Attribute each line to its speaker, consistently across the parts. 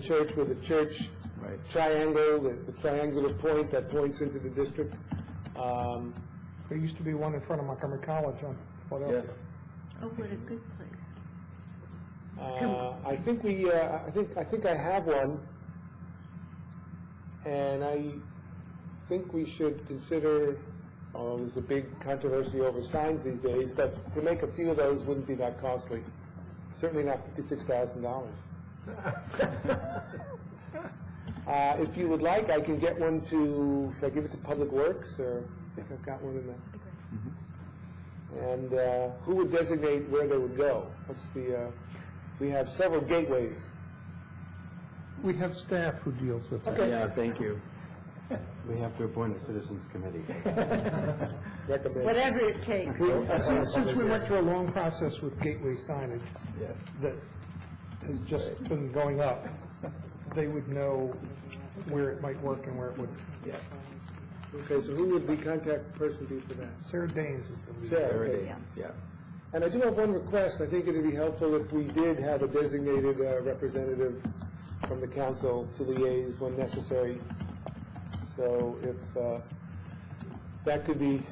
Speaker 1: church with a church
Speaker 2: Right.
Speaker 1: triangle, the- the triangular point that points into the district. Um,
Speaker 3: There used to be one in front of Montgomery College on Philadelphia.
Speaker 2: Yes.
Speaker 4: Oh, what a good place.
Speaker 1: Uh, I think we, uh, I think, I think I have one, and I think we should consider, oh, there's a big controversy over signs these days, but to make a few of those wouldn't be that costly, certainly not fifty-six thousand dollars. Uh, if you would like, I can get one to, should I give it to Public Works, or, I think I've got one in there. And uh, who would designate where they would go? What's the, uh, we have several gateways.
Speaker 3: We have staff who deals with that.
Speaker 2: Yeah, thank you. We have to appoint a citizens committee.
Speaker 1: Recommend.
Speaker 4: Whatever it takes.
Speaker 3: Since- Since we went through a long process with gateway signage that has just been going up, they would know where it might work and where it wouldn't.
Speaker 1: Okay, so who would the contact person be for that?
Speaker 3: Sarah Danes is the lead.
Speaker 1: Sarah,
Speaker 2: There it
Speaker 1: okay.
Speaker 2: is, yeah.
Speaker 1: And I do have one request. I think it'd be helpful if we did have a designated uh, representative from the council to liaise when necessary. So if uh, that could be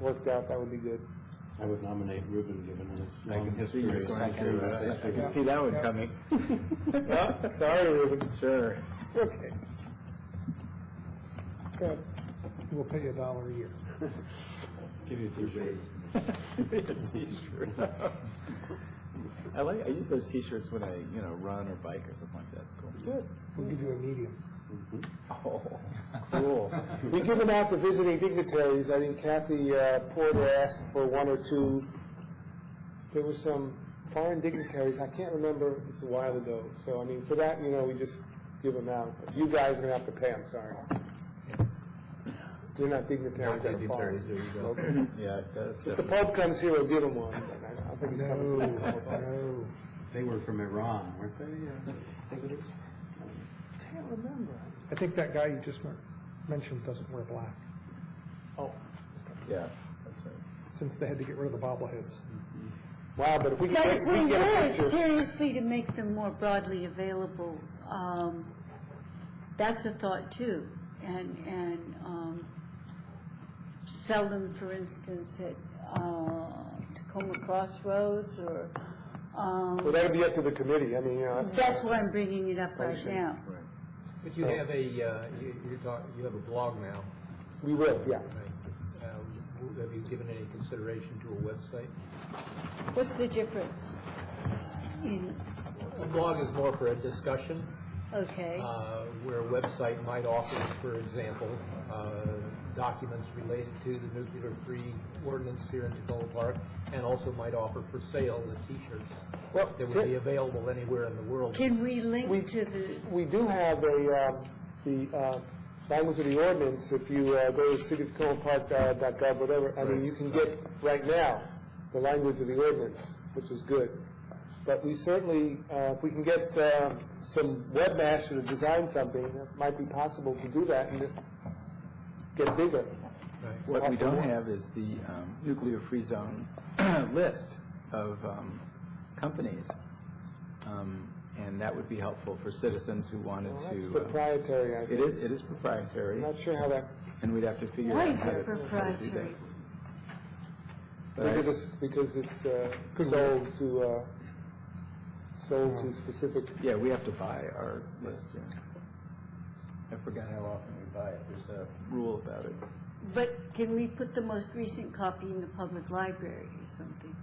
Speaker 1: worked out, that would be good.
Speaker 5: I would nominate Ruben, given his
Speaker 2: I
Speaker 5: long
Speaker 2: can see you
Speaker 5: history.
Speaker 2: going through that. I can see that one coming.
Speaker 1: Yeah, Sorry, Ruben.
Speaker 2: Sure.
Speaker 1: Okay. Good.
Speaker 3: We'll pay you a dollar a year.
Speaker 5: Give you a T-shirt.
Speaker 2: T-shirt. I like, I use those T-shirts when I, you know, run or bike or something like that, it's cool. Good.
Speaker 3: We'll give you a medium.
Speaker 2: Oh, cool.
Speaker 1: We give them out to visiting dignitaries. I think Kathy uh, Porter asked for one or two. There were some foreign dignitaries, I can't remember, it's a while ago. So, I mean, for that, you know, we just give them out. But You guys are gonna have to pay, I'm sorry. You're not dignitaries, they're foreign.
Speaker 2: Yeah, that's
Speaker 1: If the
Speaker 2: good.
Speaker 1: Pope comes here, we'll give him one. but I don't think he's
Speaker 3: No,
Speaker 1: coming.
Speaker 3: no.
Speaker 5: They were from Iran, weren't they?
Speaker 3: I think that guy you just men- mentioned doesn't wear black,
Speaker 2: Yeah, that's right.
Speaker 3: since they had to get rid of the bobbleheads.
Speaker 1: Wow, but if we
Speaker 4: But
Speaker 1: get,
Speaker 4: if
Speaker 1: if
Speaker 4: we
Speaker 1: we get a
Speaker 4: were
Speaker 1: picture.
Speaker 4: seriously to make them more broadly available, um, that's a thought too. And, and, um, sell them, for instance, at, uh, Tacoma Crossroads or,
Speaker 1: Well,
Speaker 4: um,
Speaker 1: that'd be up to the committee. I mean, you know, that's-
Speaker 4: that's why I'm bringing it up right now.
Speaker 6: But you have a, uh, you, you talk, you have a blog now,
Speaker 1: we will, yeah.
Speaker 6: right? Um, w- Have you given any consideration to a website?
Speaker 4: What's the difference? In,
Speaker 6: A blog is more for a discussion,
Speaker 4: okay,
Speaker 6: uh, where a website might offer, for example, uh, documents related to the nuclear-free ordinance here in Tacoma Park, and also might offer for sale the T-shirts
Speaker 1: Well,
Speaker 6: that
Speaker 1: sure.
Speaker 6: would be available anywhere in the world.
Speaker 4: can we
Speaker 1: We-
Speaker 4: link to the,
Speaker 1: We do have a, uh, the uh, language of the ordinance, if you uh, go to cityoftacomapark.gov, whatever, I mean, you can get right now the language of the ordinance, which is good. But we certainly, uh, if we can get uh, some webmaster to design something, it might be possible to do that and just get bigger.
Speaker 6: Right.
Speaker 2: What we don't have is the um, nuclear free zone list of um, companies, Um, and that would be helpful for citizens who wanted
Speaker 1: Well,
Speaker 2: to.
Speaker 1: That's
Speaker 2: uh,
Speaker 1: proprietary, I
Speaker 2: It
Speaker 1: think.
Speaker 2: is, it is proprietary,
Speaker 1: I'm not sure how that,
Speaker 2: and we'd have to figure
Speaker 4: why
Speaker 2: out
Speaker 4: is
Speaker 2: how to
Speaker 4: it
Speaker 2: how to do that.
Speaker 4: proprietary?
Speaker 2: But I-
Speaker 1: because it's, because it's uh, sold to, uh, sold to specific
Speaker 2: Yeah, we have to buy our list, yeah. I forgot how often we buy it, there's a rule about it.
Speaker 4: But can we put the most recent copy in the public library or something?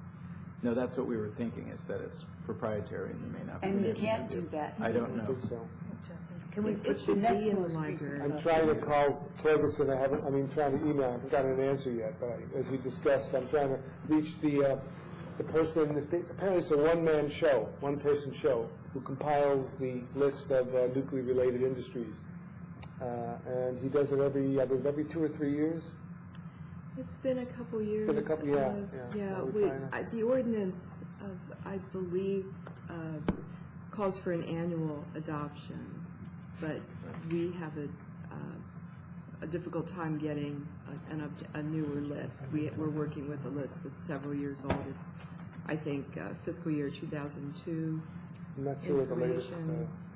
Speaker 2: No, that's what we were thinking, is that it's proprietary and you may not. be
Speaker 4: And you
Speaker 2: able to
Speaker 4: can't do that.
Speaker 2: I don't know.
Speaker 1: people, so.
Speaker 4: Can we put the next most recent?
Speaker 1: I'm trying to call Ferguson, I haven't, I mean, trying to email, I haven't gotten an answer yet, but I- as we discussed, I'm trying to reach the, uh, the person, apparently it's a one-man show, one-person show, who compiles the list of uh, nuclear-related industries. Uh, And he does it every, I believe, every two or three years.
Speaker 7: It's been a couple years.
Speaker 1: Been a couple- yeah,
Speaker 7: of-
Speaker 1: yeah,
Speaker 7: Yeah,
Speaker 1: we
Speaker 7: we,
Speaker 1: find
Speaker 7: I- the ordinance of, I believe, uh, calls for an annual adoption, but we have a, uh, a difficult time getting a- an, up- a newer list. We, we're working with a list that's several years old. It's, I think, uh, fiscal year two thousand two.
Speaker 1: I'm not sure what the latest,
Speaker 7: Information.
Speaker 1: uh,